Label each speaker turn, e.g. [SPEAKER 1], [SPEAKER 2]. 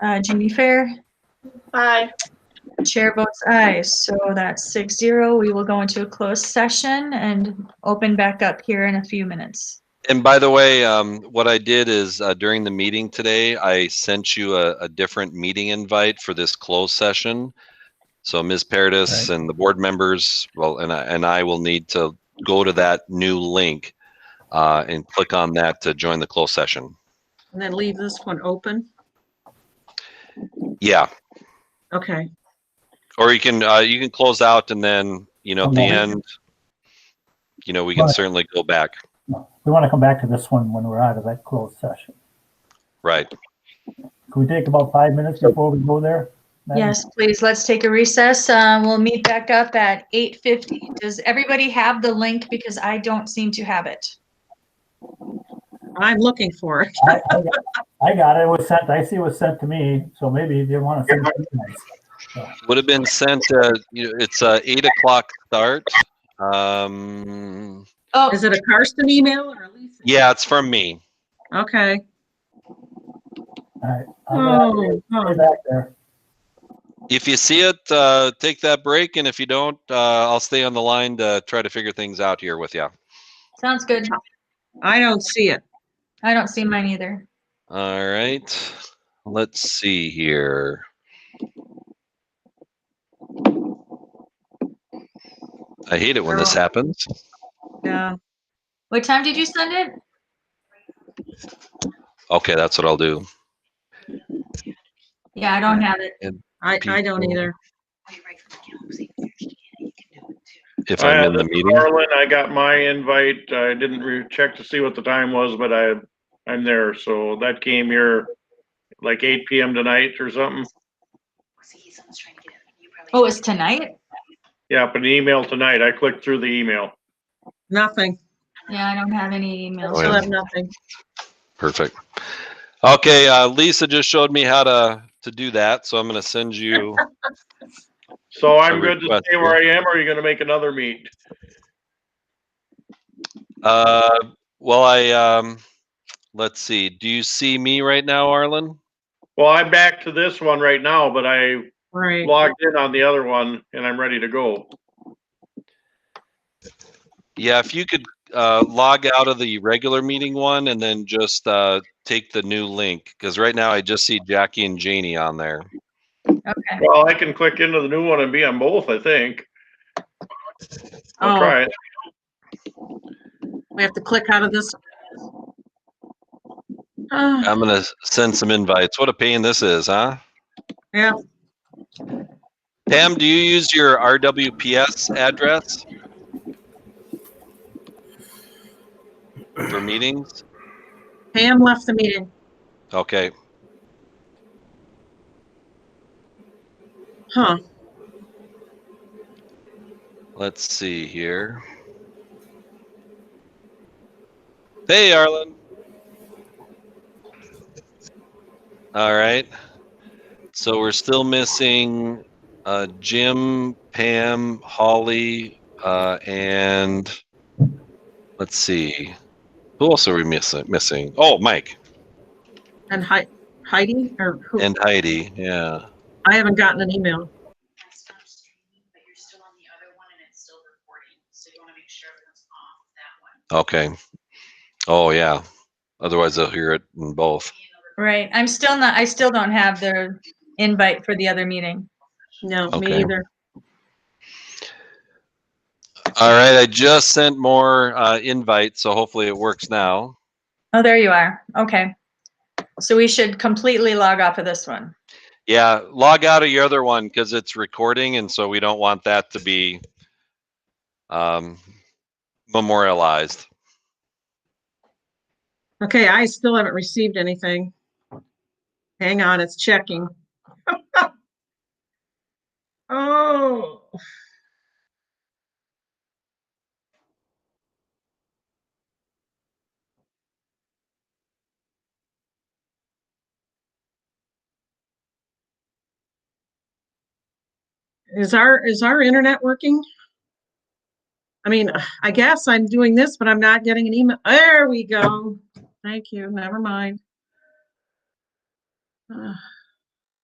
[SPEAKER 1] Uh, Jeannie Fair,
[SPEAKER 2] Aye.
[SPEAKER 1] chair votes aye, so that's six zero. We will go into a closed session and open back up here in a few minutes.
[SPEAKER 3] And by the way, um, what I did is uh, during the meeting today, I sent you a, a different meeting invite for this closed session. So Ms. Paradis and the board members, well, and I, and I will need to go to that new link uh, and click on that to join the closed session.
[SPEAKER 4] And then leave this one open?
[SPEAKER 3] Yeah,
[SPEAKER 4] Okay,
[SPEAKER 3] or you can uh, you can close out and then you know at the
[SPEAKER 5] Okay.
[SPEAKER 3] end, you know we can
[SPEAKER 5] Right.
[SPEAKER 3] certainly go back.
[SPEAKER 5] We want to come back to this one when we're out of that closed session.
[SPEAKER 3] Right.
[SPEAKER 5] Can we take about five minutes before we go there? Madam?
[SPEAKER 1] Yes, please, let's take a recess. Uh, We'll meet back up at 8:50. Does everybody have the link? Because I don't seem to have it.
[SPEAKER 4] I'm looking for it.
[SPEAKER 5] I I got- I got it. It was sent, I see it was sent to me, so maybe you didn't want to send it to me.
[SPEAKER 3] Would have been sent. Uh, you know, it's uh, eight o'clock start. Um,
[SPEAKER 1] Oh,
[SPEAKER 4] Is it a Karsten email or a Lisa?
[SPEAKER 3] Yeah, it's from me.
[SPEAKER 4] Okay.
[SPEAKER 5] All right. I'm gonna
[SPEAKER 4] Oh,
[SPEAKER 5] have to
[SPEAKER 4] oh,
[SPEAKER 5] Stay back there.
[SPEAKER 3] If you see it, uh, take that break, and if you don't, uh, I'll stay on the line to try to figure things out here with you.
[SPEAKER 1] sounds good.
[SPEAKER 4] I don't see it.
[SPEAKER 1] I don't see mine either.
[SPEAKER 3] All right, let's see here. I hate it when this happens.
[SPEAKER 4] No.
[SPEAKER 1] What time did you send it?
[SPEAKER 3] Okay, that's what I'll do.
[SPEAKER 1] Yeah, I don't have it.
[SPEAKER 4] I, I don't
[SPEAKER 3] People.
[SPEAKER 4] either.
[SPEAKER 3] If I'm
[SPEAKER 6] Uh,
[SPEAKER 3] in the
[SPEAKER 6] this is
[SPEAKER 3] meeting,
[SPEAKER 6] Harlan, I got my invite. I didn't re- check to see what the time was, but I, I'm there. So that came here like eight PM tonight or something.
[SPEAKER 1] Oh, it's tonight?
[SPEAKER 6] Yeah, but an email tonight. I clicked through the email.
[SPEAKER 4] Nothing.
[SPEAKER 1] Yeah, I don't have any emails.
[SPEAKER 3] Oh,
[SPEAKER 4] Still
[SPEAKER 3] yeah.
[SPEAKER 4] have nothing.
[SPEAKER 3] perfect. Okay, uh, Lisa just showed me how to to do that, so I'm gonna send you.
[SPEAKER 6] So
[SPEAKER 3] It's a
[SPEAKER 6] I'm good to
[SPEAKER 3] request
[SPEAKER 6] stay where I am, or are you gonna make another meet?
[SPEAKER 3] Uh, well, I um, let's see. Do you see me right now, Arlen?
[SPEAKER 6] Well, I'm back to this one right now, but I
[SPEAKER 4] Right.
[SPEAKER 6] logged in on the other one and I'm ready to go.
[SPEAKER 3] Yeah, if you could uh, log out of the regular meeting one and then just uh, take the new link, because right now I just see Jackie and Janie on there.
[SPEAKER 1] Okay.
[SPEAKER 6] Well, I can click into the new one and be on both, I think. I'll
[SPEAKER 4] Oh,
[SPEAKER 6] try it.
[SPEAKER 4] we have to click out of this. Ah,
[SPEAKER 3] I'm gonna s- send some invites. What a pain this is, huh?
[SPEAKER 4] Yeah.
[SPEAKER 3] Pam, do you use your RWPS address for meetings?
[SPEAKER 4] Pam left the meeting.
[SPEAKER 3] Okay.
[SPEAKER 4] Huh.
[SPEAKER 3] Let's see here. Hey, Arlen. All right. So we're still missing uh, Jim, Pam, Holly, uh, and let's see. Who else are we missing? Missing? Oh, Mike
[SPEAKER 4] And Hei- Heidi or who?
[SPEAKER 3] and Heidi. Yeah.
[SPEAKER 4] I haven't gotten an email.
[SPEAKER 7] I stopped streaming, but you're still on the other one and it's still recording. So you want to make sure everyone's off that one.
[SPEAKER 3] Okay. Oh, yeah. Otherwise, they'll hear it in both.
[SPEAKER 1] Right. I'm still not, I still don't have the invite for the other meeting.
[SPEAKER 4] No, me
[SPEAKER 3] Okay.
[SPEAKER 4] either.
[SPEAKER 3] All right, I just sent more uh, invites, so hopefully it works now.
[SPEAKER 1] Oh, there you are. Okay. So we should completely log off of this one.
[SPEAKER 3] Yeah, log out of your other one because it's recording, and so we don't want that to be um, memorialized.
[SPEAKER 4] Okay, I still haven't received anything. Hang on, it's checking. Oh. Is our, is our internet working? I mean, I guess I'm doing this, but I'm not getting an email. There we go. Thank you, never mind. Ah,